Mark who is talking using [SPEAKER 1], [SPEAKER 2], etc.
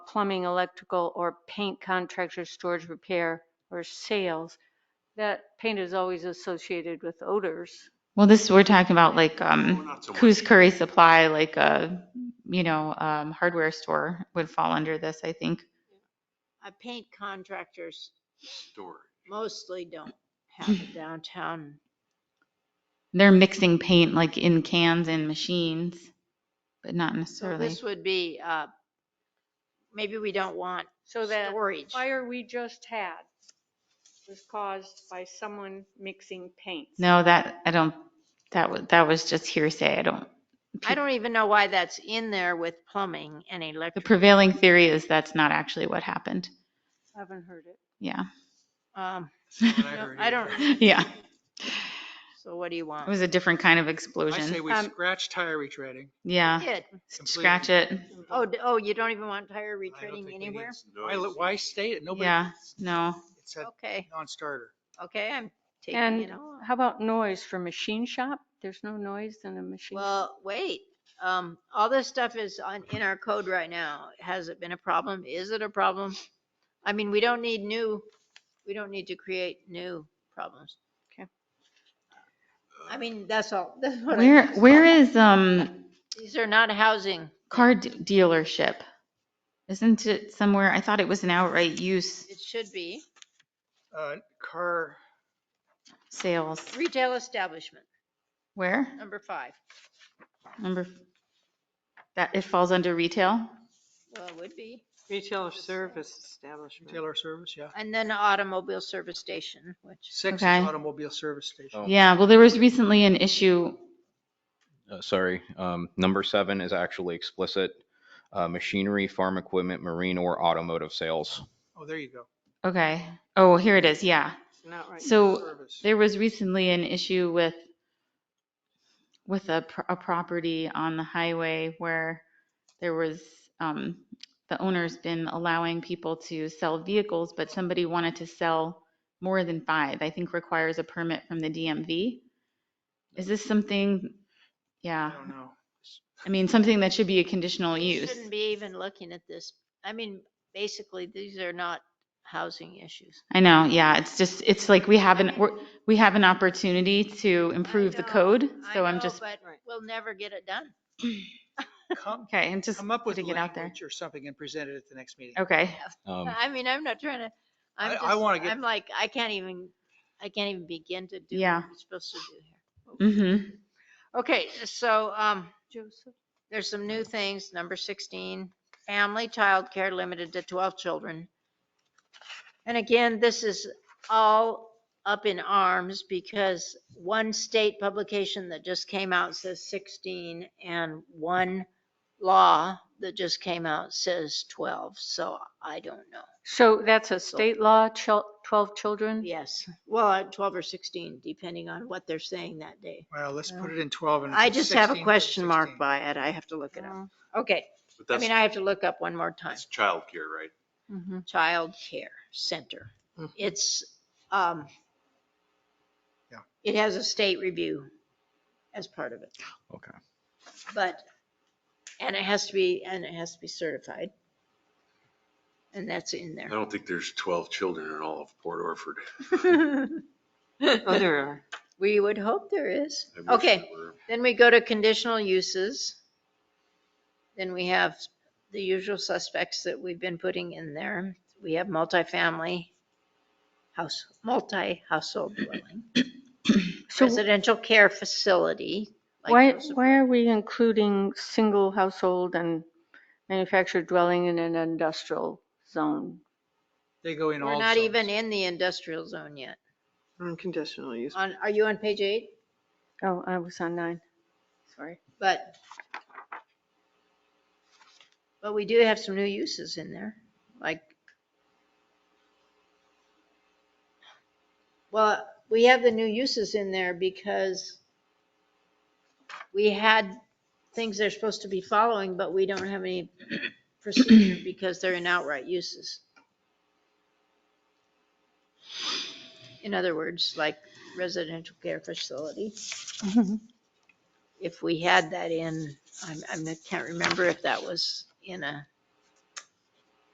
[SPEAKER 1] plumbing, electrical, or paint contractor storage, repair, or sales, that paint is always associated with odors.
[SPEAKER 2] Well, this, we're talking about like,
[SPEAKER 3] We're
[SPEAKER 2] um,
[SPEAKER 3] not so
[SPEAKER 2] Coos
[SPEAKER 3] worried.
[SPEAKER 2] Curry Supply, like a, you know, um, hardware store would fall under this, I think.
[SPEAKER 4] I paint contractors
[SPEAKER 3] Story.
[SPEAKER 4] mostly don't have a downtown.
[SPEAKER 2] They're mixing paint like in cans and machines, but not
[SPEAKER 4] So
[SPEAKER 2] necessarily.
[SPEAKER 4] this would be, uh, maybe we don't want
[SPEAKER 1] So that
[SPEAKER 4] storage.
[SPEAKER 1] fire we just had was caused by someone mixing paints.
[SPEAKER 2] No, that, I don't, that was, that was just hearsay. I don't,
[SPEAKER 4] I don't even know why that's in there with plumbing and
[SPEAKER 2] the
[SPEAKER 4] electric.
[SPEAKER 2] prevailing theory is that's not actually what happened.
[SPEAKER 1] Haven't heard it.
[SPEAKER 2] Yeah,
[SPEAKER 4] Um,
[SPEAKER 3] I
[SPEAKER 4] no,
[SPEAKER 3] heard
[SPEAKER 4] I don't,
[SPEAKER 2] yeah.
[SPEAKER 4] so what do you
[SPEAKER 2] It
[SPEAKER 4] want?
[SPEAKER 2] was a different kind of
[SPEAKER 5] I say
[SPEAKER 2] explosion.
[SPEAKER 5] we
[SPEAKER 1] Um,
[SPEAKER 5] scratch tire retreading.
[SPEAKER 2] Yeah,
[SPEAKER 4] Did,
[SPEAKER 2] scratch it.
[SPEAKER 4] oh, d- oh, you don't even want tire
[SPEAKER 3] I don't think
[SPEAKER 4] retreading
[SPEAKER 3] we need
[SPEAKER 4] anywhere?
[SPEAKER 5] Why,
[SPEAKER 3] noise.
[SPEAKER 5] why state it? Nobody.
[SPEAKER 2] Yeah, no.
[SPEAKER 5] It's a
[SPEAKER 4] Okay,
[SPEAKER 5] non-starter.
[SPEAKER 4] okay, I'm taking
[SPEAKER 1] And
[SPEAKER 4] it all.
[SPEAKER 1] how about noise for machine shop? There's no noise in a machine.
[SPEAKER 4] Well, wait, um, all this stuff is on, in our code right now. Has it been a problem? Is it a problem? I mean, we don't need new, we don't need to create new problems.
[SPEAKER 1] Okay.
[SPEAKER 4] I mean, that's all, that's what I-
[SPEAKER 2] Where, where is, um,
[SPEAKER 4] these are not housing.
[SPEAKER 2] car d- dealership? Isn't it somewhere? I thought it was an outright use
[SPEAKER 4] It should be
[SPEAKER 5] Uh, car,
[SPEAKER 2] sales.
[SPEAKER 4] retail establishment,
[SPEAKER 2] Where?
[SPEAKER 4] number five.
[SPEAKER 2] Number, that, it falls under retail?
[SPEAKER 4] Well, it would be.
[SPEAKER 6] Retail or service establishment.
[SPEAKER 5] retailer service, yeah.
[SPEAKER 4] And then automobile service station, which,
[SPEAKER 5] Six is
[SPEAKER 2] Okay.
[SPEAKER 5] automobile service station.
[SPEAKER 7] Oh.
[SPEAKER 2] Yeah, well, there was recently an issue,
[SPEAKER 7] Uh, Sorry, um, number seven is actually explicit. uh, Machinery, farm equipment, marine or automotive sales.
[SPEAKER 5] Oh, there you go.
[SPEAKER 2] okay. Oh, here it is, yeah.
[SPEAKER 6] Not right.
[SPEAKER 2] So
[SPEAKER 5] Service.
[SPEAKER 2] There was recently an issue with, with a, pr- a property on the highway where there was, um, the owner's been allowing people to sell vehicles, but somebody wanted to sell more than five, I think requires a permit from the DMV. Is this something,
[SPEAKER 5] I
[SPEAKER 2] yeah,
[SPEAKER 5] don't know.
[SPEAKER 2] I mean, something that should be a conditional
[SPEAKER 4] we
[SPEAKER 2] use?
[SPEAKER 4] shouldn't be even looking at this. I mean, basically, these are not housing issues.
[SPEAKER 2] I know, yeah, it's just, it's like we have an, we're- we have an opportunity to improve the
[SPEAKER 4] know,
[SPEAKER 2] code,
[SPEAKER 4] I
[SPEAKER 2] so I'm
[SPEAKER 4] know,
[SPEAKER 2] just,
[SPEAKER 4] But
[SPEAKER 6] Right.
[SPEAKER 4] we'll never get it done.
[SPEAKER 5] Come,
[SPEAKER 2] okay, and just
[SPEAKER 5] come up with
[SPEAKER 2] putting it out there. Oh.
[SPEAKER 5] language or something and present it at the next meeting.
[SPEAKER 2] Okay.
[SPEAKER 7] Um,
[SPEAKER 4] I mean, I'm not trying to, I'm
[SPEAKER 5] I-
[SPEAKER 4] just,
[SPEAKER 5] I wanna get-
[SPEAKER 4] I'm like, I can't even, I can't even begin to do what
[SPEAKER 2] Yeah.
[SPEAKER 4] we're supposed to do here.
[SPEAKER 2] Mm-hmm.
[SPEAKER 4] Okay, so, um,
[SPEAKER 1] Joseph?
[SPEAKER 4] there's some new things. Number 16, family childcare limited to 12 children. And again, this is all up in arms because one state publication that just came out says 16 and one law that just came out says 12. So I don't know.
[SPEAKER 1] So that's a state law, chil- 12 children?
[SPEAKER 4] Yes, well, at 12 or 16, depending on what they're saying that day.
[SPEAKER 5] Well, let's put it in 12 and. if
[SPEAKER 4] I
[SPEAKER 5] it's
[SPEAKER 4] just have a
[SPEAKER 5] 16, put
[SPEAKER 4] question mark
[SPEAKER 5] 16.
[SPEAKER 4] by it. I have to look it up.
[SPEAKER 1] Oh.
[SPEAKER 4] Okay,
[SPEAKER 3] But
[SPEAKER 4] I
[SPEAKER 3] that's,
[SPEAKER 4] mean, I have to look up one more time.
[SPEAKER 3] that's childcare, right?
[SPEAKER 1] Mhm.
[SPEAKER 4] child care center.
[SPEAKER 5] Mhm.
[SPEAKER 4] It's, um,
[SPEAKER 5] Yeah.
[SPEAKER 4] it has a state review as part of it,
[SPEAKER 7] Okay.
[SPEAKER 4] but, and it has to be, and it has to be certified. And that's in
[SPEAKER 3] I
[SPEAKER 4] there.
[SPEAKER 3] don't think there's 12 children in all of Port Orford.
[SPEAKER 6] Oh, there are.
[SPEAKER 4] We would hope there is.
[SPEAKER 3] I wish
[SPEAKER 4] Okay,
[SPEAKER 3] there were.
[SPEAKER 4] then we go to conditional uses. Then we have the usual suspects that we've been putting in there. We have multifamily house, multi-household dwelling.
[SPEAKER 1] So
[SPEAKER 4] residential care facility. like
[SPEAKER 1] why,
[SPEAKER 4] those-
[SPEAKER 1] why are we including single household and manufactured dwelling in an industrial zone?
[SPEAKER 5] They go in all.
[SPEAKER 4] We're not
[SPEAKER 5] zones.
[SPEAKER 4] even in the industrial zone yet.
[SPEAKER 6] Unconditional use.
[SPEAKER 4] On, are you on page eight?
[SPEAKER 1] Oh, I was on nine. Sorry.
[SPEAKER 4] But, but we do have some new uses in there, like, well, we have the new uses in there because we had things they're supposed to be following, but we don't have any procedure because they're in outright uses. In other words, like residential care facility if we had that in, I'm, I'm- I can't remember if that was in a